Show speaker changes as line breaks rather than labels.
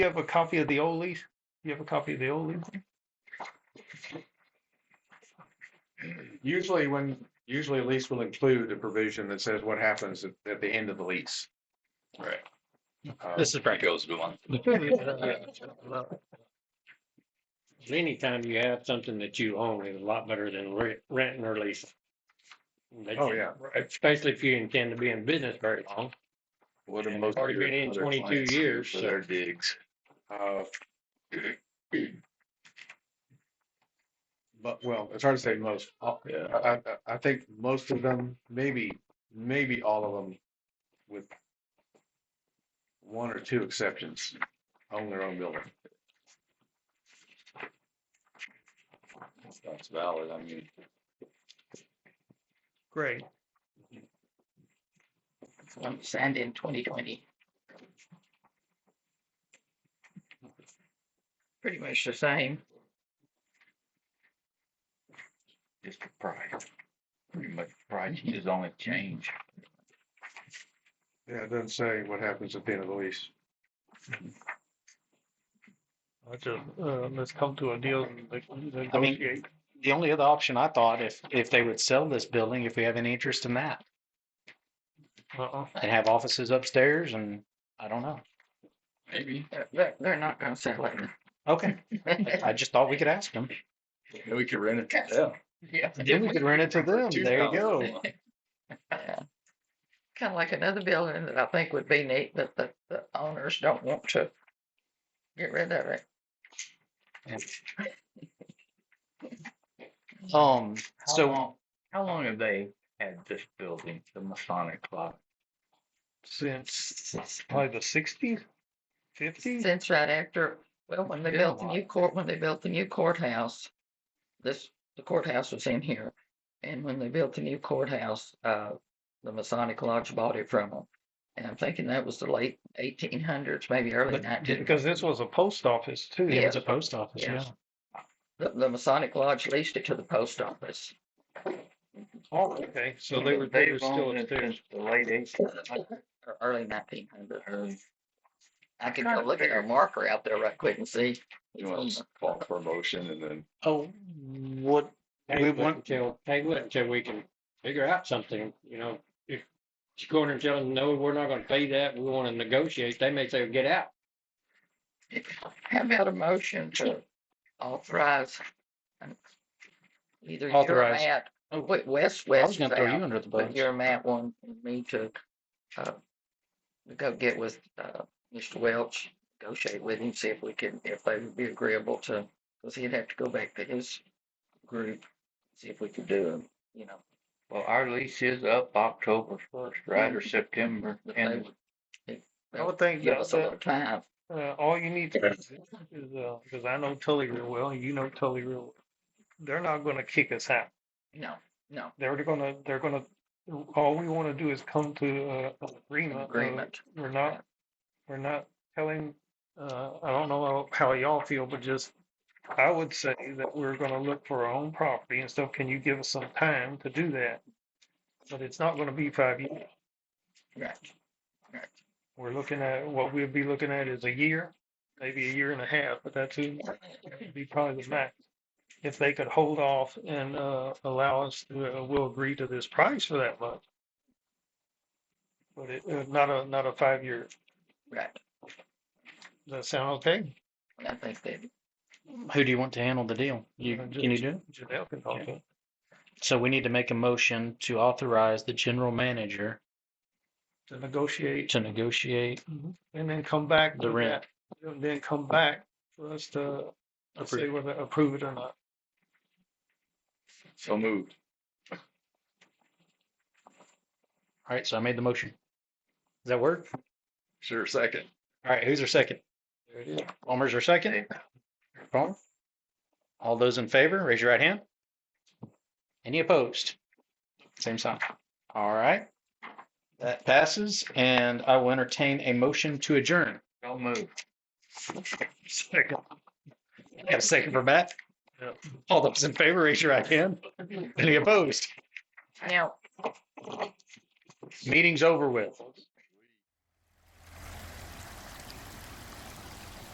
you have a copy of the old lease? You have a copy of the old lease?
Usually when, usually a lease will include a provision that says what happens at, at the end of the lease.
Right.
Uh,
This is Frank Elizabeth.
Anytime you have something that you own is a lot better than re- renting or leasing. That
Oh,
you-
yeah.
Especially if you intend to be in business very long.
What
And it's already been in 22 years,
For
so-
their digs.
uh, But, well, it's hard to say most. Uh,
Yeah.
I, I, I think most of them, maybe, maybe all of them with one or two exceptions, own their own building.
That's valid. I mean,
Great.
sand in twenty twenty. Pretty much the same.
just the price. Pretty much price is the only change.
Yeah, it doesn't say what happens at the end of the lease.
I just, uh, let's come to a deal.
I mean, the only other option I thought, if, if they would sell this building, if we have any interest in that,
Uh-uh.
and have offices upstairs and, I don't know.
Maybe.
They're, they're not gonna sell it.
Okay, I just thought we could ask them.
Maybe we could rent it to them.
Yeah.
Then we could rent it to them. There you go.
Kind of like another building that I think would be neat, but the, the owners don't want to get rid of it.
Um, so
So, how long have they had this building, the Masonic Lodge?
Since probably the sixties, fifties?
Since right after, well, when they
Yeah,
built the
why?
new court, when they built the new courthouse, this, the courthouse was in here. And when they built the new courthouse, uh, the Masonic Lodge bought it from them. And I'm thinking that was the late eighteen hundreds, maybe early nineteen.
Because this was a post office too.
it was
yeah.
a post office,
Yeah.
yeah.
The, the Masonic Lodge leased it to the post office.
Oh, okay. So they were, they were still
owned it
upstairs.
since The late eighties.
or uh, Early nineteen hundred. I can go look at our marker out there right quick and see.
You want to call for a motion and then
Oh, what,
Hey,
we
wait
want,
until, hey, wait until we can figure out something, you know, if you go in there and tell them, no, we're not gonna pay that, we wanna negotiate, they may say, get out.
How about a motion to authorize? um, Either you or
Authorize.
Matt,
Oh.
wait, Wes,
I
Wes
was
is
gonna throw you
out,
under the
but
bus.
you or Matt want me to, uh, go get with, uh, Mr. Welch, negotiate with him, see if we can, if they would be agreeable to, because he'd have to go back to his group, see if we could do it, you know.
Well, our lease is up October first, right, or September,
if Mm-hmm. they
and
would
I would think
Give us a
that,
little time.
uh, all you need to do is, uh, because I know Tully real well, and you know Tully real. well. They're not gonna kick us out.
No, no,
They're gonna, they're gonna, all we wanna do is come to, uh, an agreement. of-
agreement.
We're not, we're not telling, uh, I don't know how y'all feel, but just, I would say that we're gonna look for our own property and stuff. Can you give us some time to do that? But it's not gonna be five years.
Right.
We're looking at, what we'll be looking at is a year, maybe a year and a half, but that's it. That'd Be probably the max. If they could hold off and, uh, allow us, to, uh, we'll agree to this price for that much. But it, uh, not a, not a five-year
Right.
does that sound okay?
I think that
who do you want to handle the deal? You,
Uh,
can you do? it?
Janelle can talk to it.
So we need to make a motion to authorize the general manager
to negotiate
to negotiate
and then come back.
The
with
rent.
that, And then come back for us to to say whether approve it or not.
so moved.
All right, so I made the motion. Does that work?
Sure, second.
All right, who's our second?
There it is.
Palmer's our second. Palmer? All those in favor, raise your right hand. Any opposed? Same sign. All right. That passes and I will entertain a motion to adjourn.
don't move.
Second. Got a second for Matt?
Yep.
All those in favor, raise your right hand. Any opposed?
now
Meeting's over with.